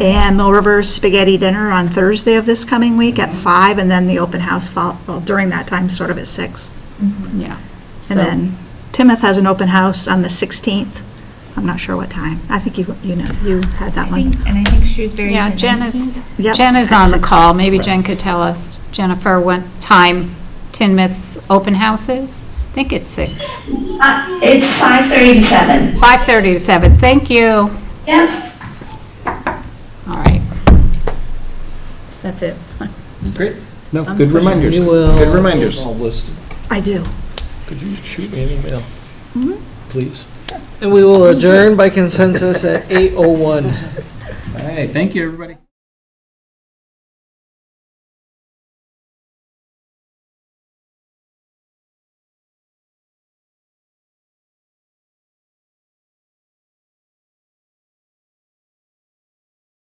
and Mill River Spaghetti Dinner on Thursday of this coming week at five, and then the open house fol, well, during that time, sort of at six. Yeah. So- And then Timoth has an open house on the 16th. I'm not sure what time. I think you, you know, you had that I one. think, and I think Shrewsbury. Yeah, had Jen 19. is, Yep. Jen is on the call, maybe Jen Right. could tell us, Jennifer, what time Tinmouth's open house is? I think it's six, Uh, It's 5:30 to 7. 5:30 to seven. thank you. Yep. All right. That's it. Great. No, Um, good reminders. We will- Good reminders. I'll list it. I do. Could you shoot me an email? Mm-hmm. Please. And we will adjourn by consensus at 8:01. All right, thank you, everybody.